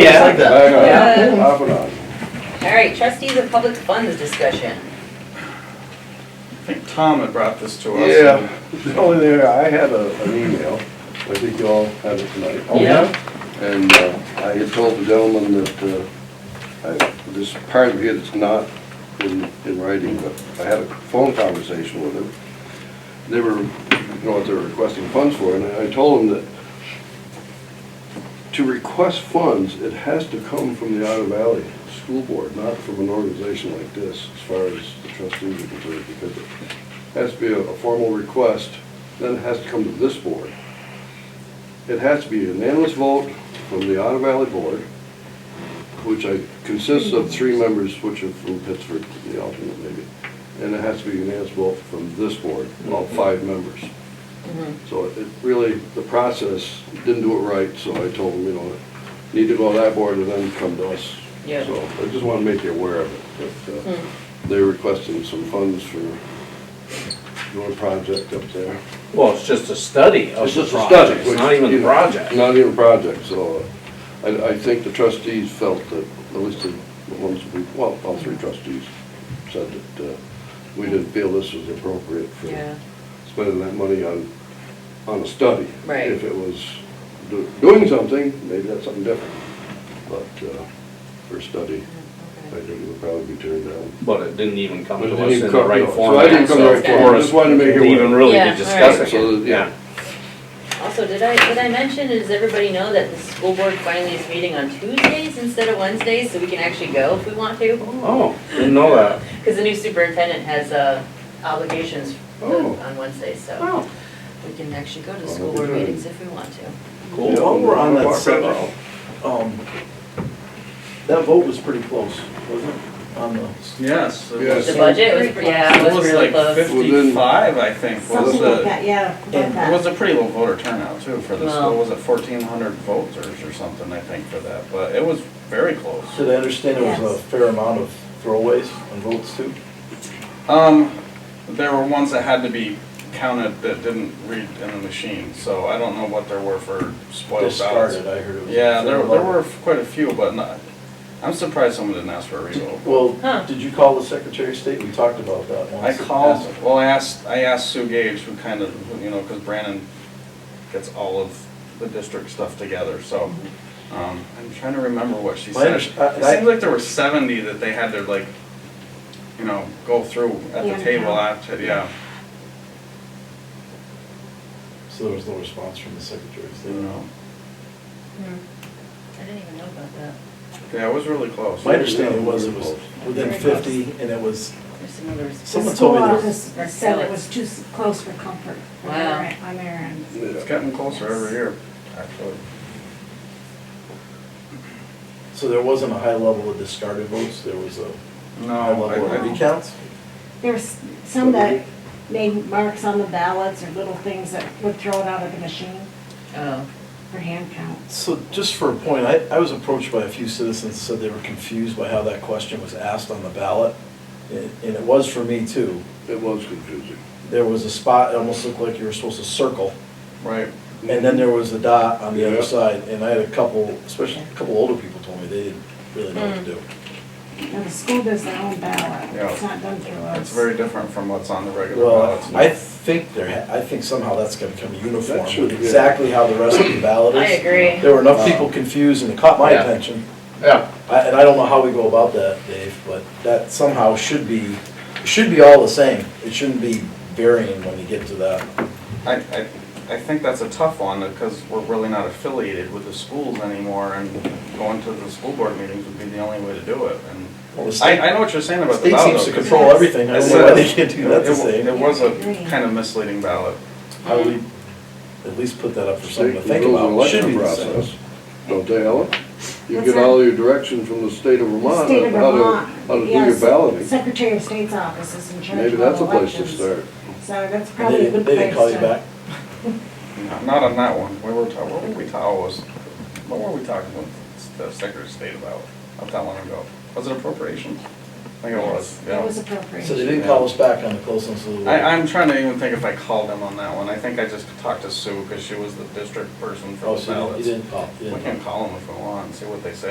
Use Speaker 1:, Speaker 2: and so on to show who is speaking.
Speaker 1: Yeah, I like
Speaker 2: I
Speaker 1: that.
Speaker 2: know.
Speaker 3: Yeah.
Speaker 2: Off and on.
Speaker 3: All right, trustees of public funds discussion.
Speaker 4: I think Tom had brought this to us.
Speaker 2: Yeah, the only thing, I had a, an email, I think you all had it tonight.
Speaker 1: Yeah.
Speaker 2: And uh, I had told the gentleman that, uh, I- this part of it is not in, in writing, but I had a phone conversation with him. They were, you know, what they're requesting funds for, and I told him that to request funds, it has to come from the Otter Valley School Board, not from an organization like this, as far as the trustees are concerned, because it has to be a a formal request, then it has to come to this board. It has to be a unanimous vote from the Otter Valley Board, which I, consists of three members, which are from Pittsburgh, the alternate maybe. And it has to be a unanimous vote from this board, all five members. So it really, the process didn't do it right, so I told them, you know, need to go to that board and then come to us.
Speaker 3: Yeah.
Speaker 2: So I just want to make you aware of it, that uh, they're requesting some funds for doing a project up there.
Speaker 1: Well, it's just a study of
Speaker 2: It's
Speaker 1: the
Speaker 2: just a study.
Speaker 1: project, it's not even a
Speaker 2: which,
Speaker 1: project.
Speaker 2: you know, Not even a project, so uh, I, I think the trustees felt that, at least the the ones, we well, all three trustees said that uh, we didn't feel this was appropriate for
Speaker 3: Yeah.
Speaker 2: spending that money on, on a study.
Speaker 3: Right.
Speaker 2: If it was do- doing something, maybe that's something different, but uh, for a study, I think it would probably be turned down.
Speaker 1: But it didn't even come
Speaker 2: But it
Speaker 1: to
Speaker 2: didn't
Speaker 1: us
Speaker 2: even
Speaker 1: in the
Speaker 2: come- no,
Speaker 1: right
Speaker 2: so I
Speaker 1: format.
Speaker 2: didn't come
Speaker 3: to the
Speaker 1: so
Speaker 3: right format.
Speaker 1: for us
Speaker 2: Just wanted to make it
Speaker 1: Even
Speaker 2: aware.
Speaker 1: really
Speaker 3: Yeah,
Speaker 1: to discuss
Speaker 3: alright.
Speaker 1: it,
Speaker 2: So that-
Speaker 1: yeah.
Speaker 3: Also, did I, did I mention, does everybody know that the school board finally is meeting on Tuesdays instead of Wednesdays, so we can actually go if we want to?
Speaker 1: Oh, didn't know that.
Speaker 3: Because the new superintendent has uh, obligations
Speaker 2: Oh.
Speaker 3: on Wednesdays, so
Speaker 1: Oh,
Speaker 3: we can actually go to
Speaker 2: Oh, that'd
Speaker 3: school
Speaker 2: be
Speaker 3: board
Speaker 2: good.
Speaker 3: meetings if we want to.
Speaker 1: cool.
Speaker 2: Yeah.
Speaker 5: While we're on that
Speaker 2: Walk right
Speaker 5: subject,
Speaker 2: out.
Speaker 5: um, that vote was pretty close, wasn't it? On the,
Speaker 4: Yes. it
Speaker 2: Yes.
Speaker 4: was-
Speaker 3: The budget was, pre- yeah, it was really
Speaker 4: It was like
Speaker 3: close.
Speaker 4: fifty-five, I think, was
Speaker 6: Something like
Speaker 4: the,
Speaker 6: that, yeah. about
Speaker 4: it
Speaker 6: that.
Speaker 4: was a pretty low voter turnout too for the
Speaker 3: Well.
Speaker 4: school. Was it fourteen hundred voters or something, I think, for that? But it was very close.
Speaker 5: did I understand it was a
Speaker 6: Yes.
Speaker 5: fair amount of throwaways and votes too?
Speaker 4: Um, there were ones that had to be counted that didn't read in the machine, so I don't know what there were for spoiled ballots.
Speaker 5: Discarded, I heard it was. a
Speaker 4: Yeah, there,
Speaker 5: fair
Speaker 4: there
Speaker 5: amount.
Speaker 4: were quite a few, but not, I'm surprised someone didn't ask for a revote.
Speaker 3: Huh.
Speaker 5: Well, did you call the Secretary of State? We talked about that
Speaker 4: I
Speaker 5: once.
Speaker 4: called, well, I asked, I asked Sue Gage, who kind of, you know, because Brandon gets all of the district stuff together, so. um, I'm trying to remember what she
Speaker 5: My
Speaker 4: said. It
Speaker 5: underst- uh, I- I-
Speaker 4: seems like there were seventy that they had to like, you know, go through at
Speaker 6: Yeah,
Speaker 4: the table
Speaker 6: no.
Speaker 4: after, yeah.
Speaker 5: So there was no response from the Secretary of
Speaker 4: you
Speaker 5: State.
Speaker 4: know.
Speaker 3: Hmm. I didn't even know about that.
Speaker 4: Yeah, it was really close.
Speaker 5: My understanding was it was within
Speaker 3: Very close.
Speaker 5: fifty and it was,
Speaker 3: There's another.
Speaker 6: The
Speaker 5: someone
Speaker 6: school
Speaker 5: told me there
Speaker 6: office
Speaker 5: was,
Speaker 6: said it was too s- close for comfort. on their
Speaker 3: Wow.
Speaker 6: end- On their end.
Speaker 4: It's getting closer every year, actually.
Speaker 5: so there wasn't a high level of discarded votes, there was a high
Speaker 4: No,
Speaker 5: level
Speaker 4: I,
Speaker 5: of
Speaker 4: I,
Speaker 5: recounts?
Speaker 6: There was some that made marks on the ballots or little things that would throw it out of the machine
Speaker 3: Oh,
Speaker 6: for hand counts.
Speaker 5: So just for a point, I, I was approached by a few citizens, said they were confused by how that question was asked on the ballot. And and it was for me too.
Speaker 2: It was confusing.
Speaker 5: There was a spot, it almost looked like you were supposed to circle.
Speaker 4: right,
Speaker 5: And then there was a dot on the
Speaker 2: Yeah.
Speaker 5: other side. And I had a couple, especially a couple older people told me they didn't really know what to do.
Speaker 6: Now, the school does their own ballot.
Speaker 4: Yeah.
Speaker 6: It's not done through us.
Speaker 4: it's very different from what's on the regular ballots.
Speaker 5: Well, I think there, ha- I think somehow that's gonna become uniform,
Speaker 2: That should,
Speaker 5: with
Speaker 2: yeah.
Speaker 5: exactly how the rest of the ballot
Speaker 3: I
Speaker 5: is.
Speaker 3: agree.
Speaker 5: There were enough people confused and it caught my
Speaker 1: Yeah.
Speaker 5: attention.
Speaker 1: Yeah,
Speaker 5: I- And I don't know how we go about that, Dave, but that somehow should be, it should be all the same. It shouldn't be varying when you get to that.
Speaker 4: I, I, I think that's a tough one, because we're really not affiliated with the schools anymore, and going to the school board meetings would be the only way to do it, and
Speaker 5: Well, the state-
Speaker 4: I, I know what you're saying about the
Speaker 5: State
Speaker 4: ballot,
Speaker 5: seems
Speaker 4: though.
Speaker 5: to
Speaker 4: 'cause
Speaker 5: control everything. I
Speaker 4: it
Speaker 5: don't know why
Speaker 4: said-
Speaker 5: they can't do that the
Speaker 4: it wa- It
Speaker 5: same.
Speaker 4: was a
Speaker 6: Agree.
Speaker 4: kind of misleading ballot.
Speaker 5: I would at least put that up for someone
Speaker 2: State
Speaker 5: to
Speaker 2: rules
Speaker 5: think
Speaker 2: an
Speaker 5: about. It Should be
Speaker 2: election
Speaker 5: the same.
Speaker 2: process, don't they, Ellen? You
Speaker 6: What's
Speaker 2: get
Speaker 6: that?
Speaker 2: all your direction from the state of Vermont,
Speaker 6: State of
Speaker 2: on how to,
Speaker 6: Vermont.
Speaker 2: how to do
Speaker 6: yes,
Speaker 2: your balloting.
Speaker 6: Secretary of State's office is in charge of
Speaker 2: Maybe that's a
Speaker 6: all
Speaker 2: place to
Speaker 6: elections.
Speaker 2: start.
Speaker 6: So that's
Speaker 5: And
Speaker 6: probably
Speaker 5: They
Speaker 6: a
Speaker 5: didn't,
Speaker 6: good place
Speaker 5: they
Speaker 6: to.
Speaker 5: didn't call you back?
Speaker 4: No, Not on that one, we were ta, what were we ta, I was, what were we talking with the Secretary of State about, not that long ago? Was it appropriations? think it was,
Speaker 6: It was
Speaker 4: yeah.
Speaker 6: appropriate.
Speaker 5: So they didn't call us back on the closeness of the.
Speaker 4: I, I'm trying to even think if I called them on that one. I think I just talked to Sue, because she was the district person for
Speaker 5: Oh,
Speaker 4: the
Speaker 5: so you
Speaker 4: ballots.
Speaker 5: didn't call, you
Speaker 4: We
Speaker 5: didn't call.
Speaker 4: can call them if we want, and see what they say.